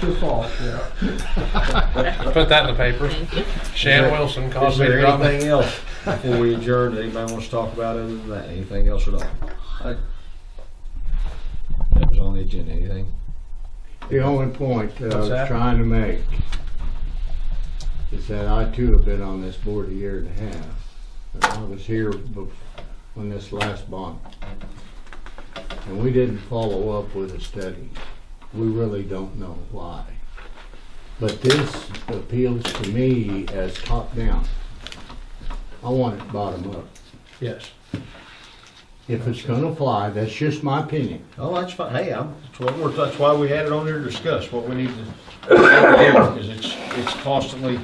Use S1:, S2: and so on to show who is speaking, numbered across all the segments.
S1: True or false, yeah.
S2: Put that in the paper.
S3: Thank you.
S2: Shan Wilson
S4: Is
S2: caused me to
S4: there
S2: drop my.
S4: anything else before we adjourn that anybody wants to talk about other than that? Anything else at all?
S1: I-
S4: That was on the agenda, anything?
S5: The only point that I
S4: What's
S5: was
S4: that?
S5: trying to make is that I too have been on this board a year and a half. And I was here bef- when this last bond. And we didn't follow up with a study. We really don't know why. But this appeals to me as top down. I want it bottom up.
S2: Yes.
S5: If it's gonna fly, that's just my opinion.
S4: Oh, that's fine, hey, I'm, that's what we're, that's why we had it on there to discuss, what we need to, because it's, it's constantly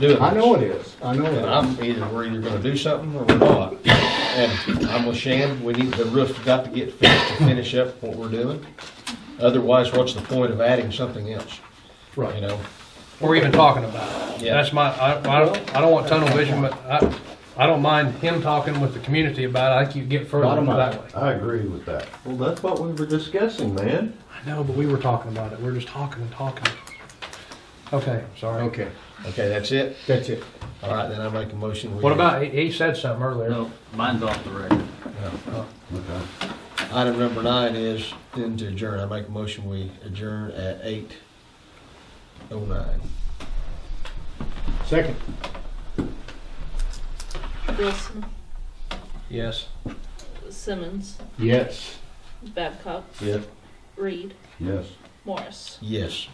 S4: doing this.
S5: I know it is. I know
S4: And
S5: it is.
S4: I'm either, we're either gonna do something or we're not. And I'm with Shan, we need, the roof's got to get fixed to finish up what we're doing. Otherwise, what's the point of adding something else, you know?
S2: We're even talking about it.
S4: Yeah.
S2: That's my, I, I don't, I don't want tunnel vision, but I, I don't mind him talking with the community about it. I think you get further
S5: Bottom up.
S2: that way.
S6: I agree with that.
S7: Well, that's what we were discussing, man.
S2: I know, but we were talking about it. We are just talking and talking. Okay, sorry.
S5: Okay,
S4: Okay, that's it?
S5: that's it.
S4: All right, then I make a motion. we-
S2: What about, he, he said something earlier.
S8: No, mine's off the record.
S4: Item number nine is then to adjourn. I make a motion, we adjourn at eight oh nine.
S5: Second.
S3: Wilson,
S2: Yes.
S3: Simmons,
S5: Yes.
S3: Babcock,
S4: Yep.
S3: Reed,
S6: Yes.
S3: Morris.
S4: Yes.